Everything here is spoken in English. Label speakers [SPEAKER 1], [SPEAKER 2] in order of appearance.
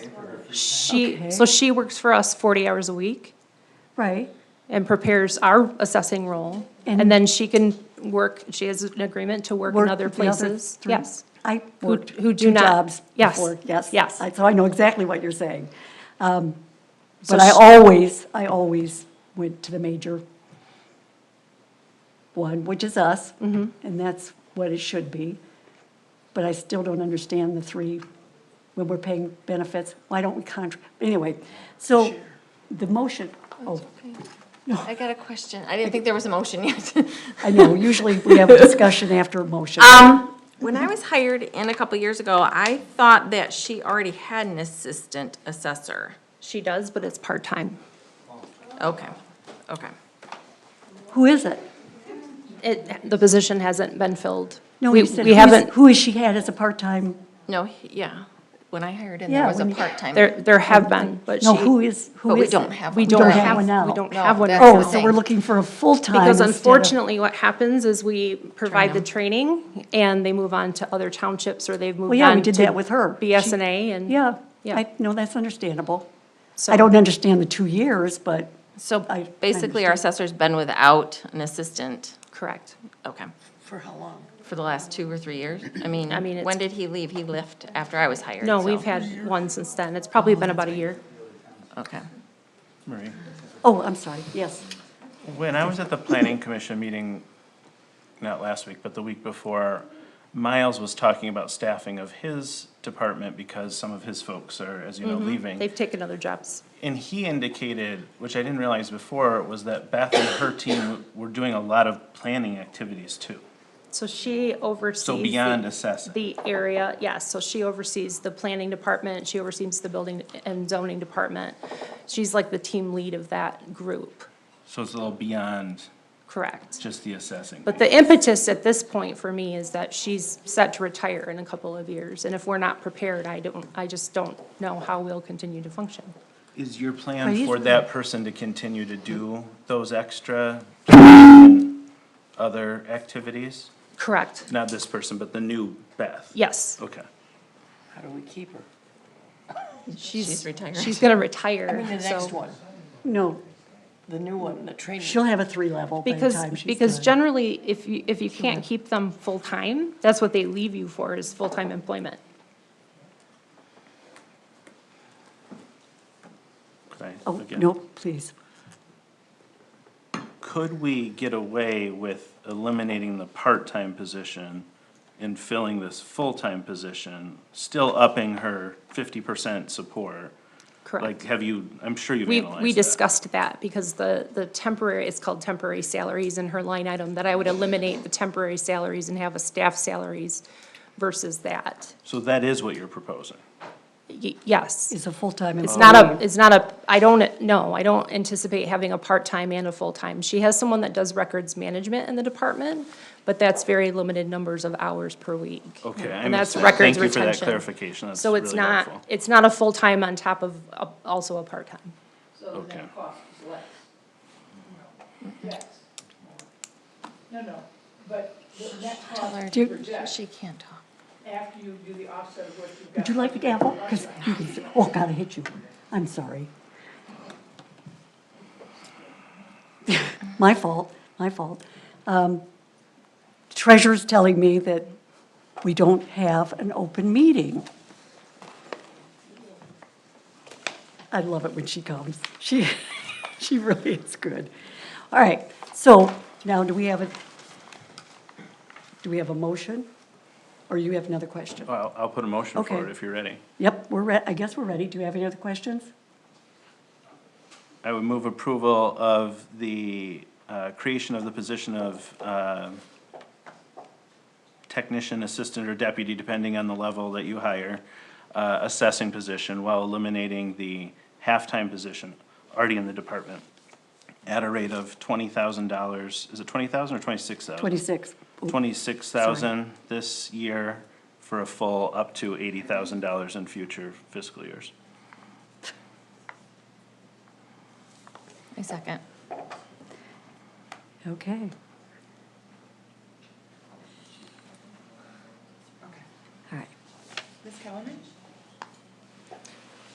[SPEAKER 1] for her free
[SPEAKER 2] She,
[SPEAKER 3] Okay.
[SPEAKER 2] so she works for us forty hours a week
[SPEAKER 3] Right,
[SPEAKER 2] and prepares our assessing role.
[SPEAKER 3] And-
[SPEAKER 2] And then she can work, she has an agreement to work in
[SPEAKER 3] Work
[SPEAKER 2] other
[SPEAKER 3] the other
[SPEAKER 2] places.
[SPEAKER 3] three.
[SPEAKER 2] Yes.
[SPEAKER 3] I
[SPEAKER 2] Who-
[SPEAKER 3] worked
[SPEAKER 2] who
[SPEAKER 3] two
[SPEAKER 2] do not-
[SPEAKER 3] jobs
[SPEAKER 2] Yes,
[SPEAKER 3] before, yes.
[SPEAKER 2] yes.
[SPEAKER 3] I- So I know exactly what you're saying. Um,
[SPEAKER 2] So
[SPEAKER 3] But I
[SPEAKER 2] sh-
[SPEAKER 3] always, I always went to the major one, which is us,
[SPEAKER 2] Mm-hmm.
[SPEAKER 3] and that's what it should be. But I still don't understand the three, when we're paying benefits, why don't we contract, anyway. So the motion, oh,
[SPEAKER 4] I got a question. I didn't think there was a motion yet.
[SPEAKER 3] I know, usually we have a discussion after a motion.
[SPEAKER 2] Um,
[SPEAKER 4] When I was hired in a couple years ago, I thought that she already had an assistant assessor.
[SPEAKER 2] She does, but it's part-time.
[SPEAKER 4] Okay, okay.
[SPEAKER 3] Who is it?
[SPEAKER 2] It, the position hasn't been filled.
[SPEAKER 3] No,
[SPEAKER 2] We-
[SPEAKER 3] you said,
[SPEAKER 2] We
[SPEAKER 3] who is-
[SPEAKER 2] haven't,
[SPEAKER 3] Who has she had as a part-time?
[SPEAKER 4] No, he- yeah, when I hired in,
[SPEAKER 3] Yeah,
[SPEAKER 4] there was a
[SPEAKER 3] when you-
[SPEAKER 4] part-time.
[SPEAKER 2] there, there have been, but she.
[SPEAKER 3] No, who is, who
[SPEAKER 4] But
[SPEAKER 3] is?
[SPEAKER 4] we
[SPEAKER 3] it?
[SPEAKER 4] don't have
[SPEAKER 2] We
[SPEAKER 4] one.
[SPEAKER 2] don't
[SPEAKER 3] don't
[SPEAKER 2] have,
[SPEAKER 3] have
[SPEAKER 2] we
[SPEAKER 3] one now.
[SPEAKER 2] don't
[SPEAKER 4] No,
[SPEAKER 2] have one.
[SPEAKER 4] that's
[SPEAKER 2] now.
[SPEAKER 4] the
[SPEAKER 3] Oh, so
[SPEAKER 4] thing.
[SPEAKER 3] we're looking for a full-time
[SPEAKER 2] Because
[SPEAKER 3] instead of-
[SPEAKER 2] unfortunately, what happens is we provide the training and they move on to other townships or they've
[SPEAKER 3] Well,
[SPEAKER 2] moved
[SPEAKER 3] yeah, we
[SPEAKER 2] on
[SPEAKER 3] did that
[SPEAKER 2] to
[SPEAKER 3] with her.
[SPEAKER 2] BSNA and.
[SPEAKER 3] Yeah,
[SPEAKER 2] Yeah.
[SPEAKER 3] I, no, that's understandable.
[SPEAKER 2] So-
[SPEAKER 3] I don't understand the two years, but
[SPEAKER 4] So
[SPEAKER 3] I- I
[SPEAKER 4] basically, our assessor's been without an assistant,
[SPEAKER 2] Correct.
[SPEAKER 4] okay,
[SPEAKER 1] For how long?
[SPEAKER 4] for the last two or three years? I
[SPEAKER 2] I mean,
[SPEAKER 4] mean,
[SPEAKER 2] it's-
[SPEAKER 4] when did he leave? He left after I was hired,
[SPEAKER 2] No, we've
[SPEAKER 4] so-
[SPEAKER 2] had one since then. It's
[SPEAKER 1] Oh,
[SPEAKER 2] probably been about a year.
[SPEAKER 4] Okay.
[SPEAKER 5] Marie,
[SPEAKER 3] oh, I'm sorry, yes.
[SPEAKER 5] when I was at the planning commission meeting, not last week, but the week before, Miles was talking about staffing of his department because some of his folks are, as you know, leaving.
[SPEAKER 2] Mm-hmm. They've taken other jobs.
[SPEAKER 5] And he indicated, which I didn't realize before, was that Beth and her team were doing a lot of planning activities too.
[SPEAKER 2] So she oversees.
[SPEAKER 5] So beyond
[SPEAKER 2] the-
[SPEAKER 5] assessing.
[SPEAKER 2] The area, yes, so she oversees the planning department, she oversees the building and zoning department. She's like the team lead of that group,
[SPEAKER 5] So it's a little beyond
[SPEAKER 2] correct?
[SPEAKER 5] just the assessing.
[SPEAKER 2] But the impetus at this point for me is that she's set to retire in a couple of years. And if we're not prepared, I don't, I just don't know how we'll continue to function.
[SPEAKER 5] Is your
[SPEAKER 3] But
[SPEAKER 5] plan
[SPEAKER 3] he's-
[SPEAKER 5] for that person to continue to do those extra and other activities?
[SPEAKER 2] Correct,
[SPEAKER 5] Not this person, but the new Beth?
[SPEAKER 2] yes.
[SPEAKER 5] Okay.
[SPEAKER 1] How do we keep her?
[SPEAKER 4] She's retired.
[SPEAKER 2] She's gonna retire,
[SPEAKER 1] I mean, the next
[SPEAKER 2] so-
[SPEAKER 1] one,
[SPEAKER 3] No,
[SPEAKER 1] the new one, the training.
[SPEAKER 3] she'll have a three-level by the
[SPEAKER 2] Because,
[SPEAKER 3] time she's
[SPEAKER 2] because
[SPEAKER 3] done.
[SPEAKER 2] generally, if you, if you can't keep them full-time, that's what they leave you for, is full-time employment.
[SPEAKER 5] Could I-
[SPEAKER 3] Oh,
[SPEAKER 5] again,
[SPEAKER 3] no, please.
[SPEAKER 5] Could we get away with eliminating the part-time position and filling this full-time position, still upping her fifty percent support? Like,
[SPEAKER 2] Correct.
[SPEAKER 5] have you, I'm sure you've
[SPEAKER 2] We,
[SPEAKER 5] analyzed that.
[SPEAKER 2] we discussed that, because the, the temporary, it's called temporary salaries in her line item, that I would eliminate the temporary salaries and have a staff salaries versus that.
[SPEAKER 5] So that is what you're proposing?
[SPEAKER 2] Y- Yes.
[SPEAKER 3] It's a full-time
[SPEAKER 2] It's
[SPEAKER 3] employee.
[SPEAKER 2] not a, it's not a, I don't, no, I don't anticipate having a part-time and a full-time. She has someone that does records management in the department, but that's very limited numbers of hours per week.
[SPEAKER 5] Okay, I
[SPEAKER 2] And that's
[SPEAKER 5] missed that.
[SPEAKER 2] records
[SPEAKER 5] Thank you for that
[SPEAKER 2] retention.
[SPEAKER 5] clarification. That's
[SPEAKER 2] So it's
[SPEAKER 5] really
[SPEAKER 2] not,
[SPEAKER 5] helpful.
[SPEAKER 2] it's not a full-time on top of, a- also a part-time.
[SPEAKER 6] So
[SPEAKER 5] Okay.
[SPEAKER 6] then cost is less. Yes. No, no, but the net cost
[SPEAKER 3] Do
[SPEAKER 6] you
[SPEAKER 3] you-
[SPEAKER 6] project
[SPEAKER 4] She can't talk.
[SPEAKER 6] after you do the offset of what you've got.
[SPEAKER 3] Would you like a gavel? 'Cause you can see- oh, God, I hit you. I'm sorry. My fault, my fault. Um, Treasurer's telling me that we don't have an open meeting. I love it when she comes. She, she really is good. All right, so now do we have a, do we have a motion? Or you have another question?
[SPEAKER 5] Well, I'll put a motion
[SPEAKER 3] Okay.
[SPEAKER 5] forward if you're ready.
[SPEAKER 3] Yep, we're re, I guess we're ready. Do you have any other questions?
[SPEAKER 5] I would move approval of the uh, creation of the position of uh, technician, assistant, or deputy, depending on the level that you hire, uh, assessing position while eliminating the half-time position already in the department at a rate of twenty thousand dollars. Is it twenty thousand or twenty-six thousand?
[SPEAKER 3] Twenty-six.
[SPEAKER 5] Twenty-six thousand this year for a full up to eighty thousand dollars in future fiscal years.
[SPEAKER 4] A second.
[SPEAKER 3] Okay. All right.
[SPEAKER 6] Ms. Kellerman?